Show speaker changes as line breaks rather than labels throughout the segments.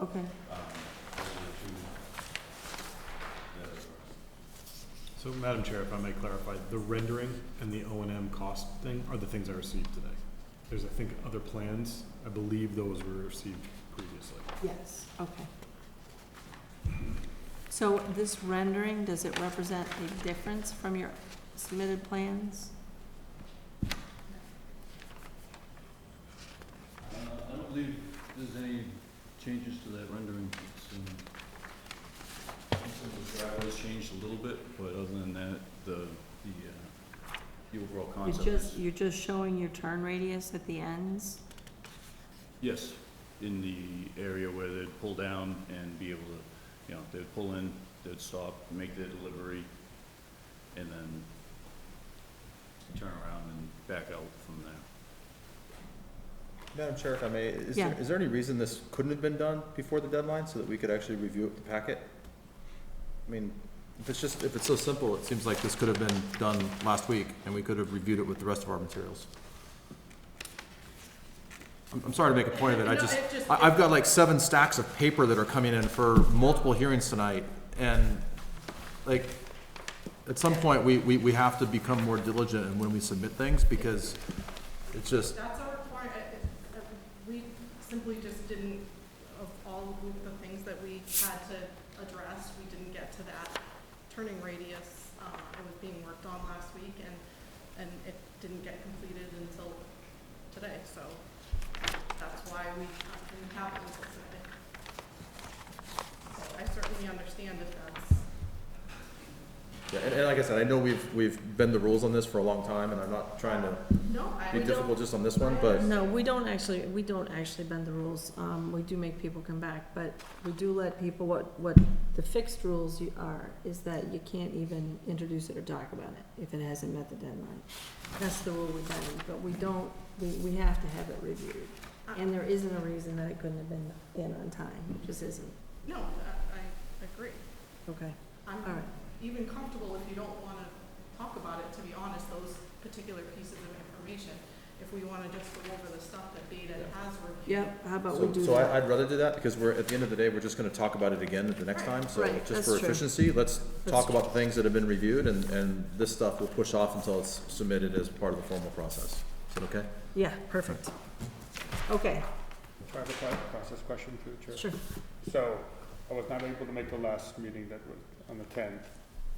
okay.
Um, those are the two that are-
So, Madam Chair, if I may clarify, the rendering and the O and M cost thing are the things I received today. There's, I think, other plans. I believe those were received previously.
Yes, okay. So this rendering, does it represent a difference from your submitted plans?
Uh, I don't believe there's any changes to that rendering. It's, uh, um, The driveway's changed a little bit, but other than that, the, the, uh, the overall
You're
concept
just,
is,
you're just showing your turn radius at the ends?
yes, in the area where they'd pull down and be able to, you know, they'd pull in, they'd stop, make their delivery, and then turn around and back out from there.
Madam Chair, if I may, is
Yeah.
there, is there any reason this couldn't have been done before the deadline so that we could actually review it with the packet? I mean, if it's just, if it's so simple, it seems like this could have been done last week and we could have reviewed it with the rest of our materials. I'm, I'm sorry to make a point of it, I
No,
just,
it just-
I, I've got like seven stacks of paper that are coming in for multiple hearings tonight and like, at some point, we, we, we have to become more diligent in when we submit things because it's just,
That's our requirement, we simply just didn't, of all of the things that we had to address, we didn't get to that turning radius. Uh, it was being worked on last week and, and it didn't get completed until today, so that's why we didn't have it until today. So I certainly understand if that's,
Yeah, and, and like I said, I know we've, we've been the rules on this for a long time, and I'm not trying to
no, I
be
don't.
difficult just on this one, but
No, we don't actually, we don't actually bend the rules. Um, we do make people come back, but we do let people, what, what the fixed rules you are, is that you can't even introduce it or talk about it if it hasn't met the deadline. That's the rule we bend, but we don't, we, we have to have it reviewed. And there isn't a reason that it couldn't have been in on time, It just isn't.
No, I, I agree.
Okay.
I'm
All right.
even comfortable if you don't want to talk about it, to be honest, those particular pieces of information. If we want to just go over the stuff that Beta
Yeah.
has reviewed.
Yep, how about we
so,
do
so I,
that?
I'd rather do that, because we're, at the end of the day, we're just gonna talk about it again at the next time, so
Right,
just
that's
for
true.
efficiency, let's
That's
talk about the things that have been reviewed, and, and this stuff will push off until it's submitted as part of the formal process. Is that okay?
Yeah, perfect. Okay,
I have a que- process question through the chair.
sure.
So I was not able to make the last meeting that was on the tenth,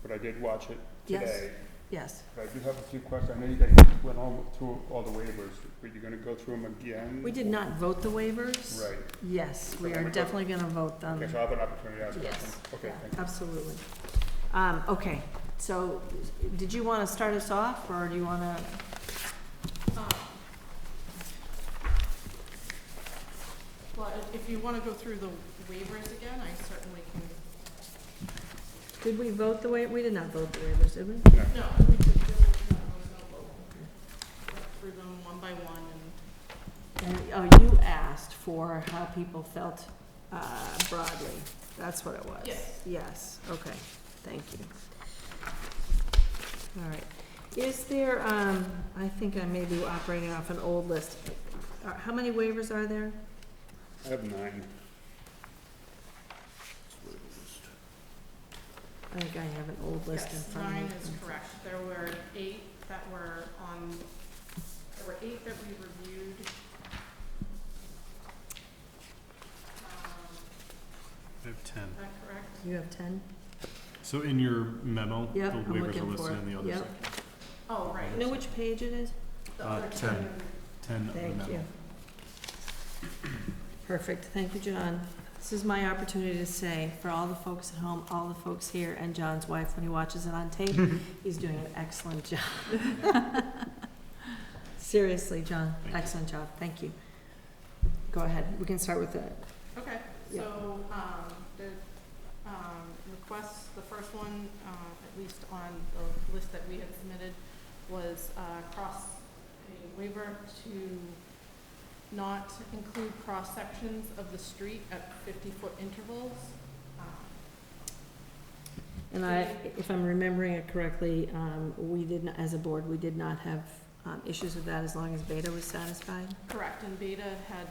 but I did watch it
Yes.
today.
Yes.
But I do have a few questions. I know you guys went all through all the waivers, but you're gonna go through them again?
We did not vote the waivers.
Right.
Yes, we are definitely gonna vote them.
Okay, so I have an opportunity to ask
Yes.
questions. Okay,
yeah,
thank you.
Absolutely. Um, okay, so did you wanna start us off, or do you wanna,
Um, Well, if- if you want to go through the waivers again, I certainly can.
did we vote the wa, we did not vote the waivers, did we?
No, we could do, no, there's no vote. Go Through them one by one and.
And, oh, you asked for how people felt, uh, broadly, that's what it was.
Yes.
Yes, okay, thank you. All right, is there, um, I think I may be operating off an old list. Uh, How many waivers are there?
I have nine.
I think I have an old list in
Yes,
front of me.
nine is correct. There were eight that were on, there were eight that we reviewed. Um,
I have ten.
Is that correct?
You have ten?
So in your memo, the
Yep, I'm
waivers are
looking for
listed in
it.
the other
Yep.
section.
Oh, right.
You know which page it is?
The
Uh,
other
ten.
two-
Ten of the memo.
Thank you. Perfect, thank you, John. This is my opportunity to say, for all the folks at home, all the folks here, and John's wife when he watches it on tape, he's doing an excellent job. Seriously, John,
Thank you.
excellent job, thank you. Go ahead, we can start with that.
Okay,
Yeah.
so, um, the, um, requests, the first one, uh, at least on the list that we had submitted, was, uh, cross, a waiver to not include cross-sections of the street at fifty-foot intervals. Um,
And I, if I'm remembering it correctly, um, we did, not as a board, we did not have, um, issues with that as long as Beta was satisfied?
Correct, and Beta had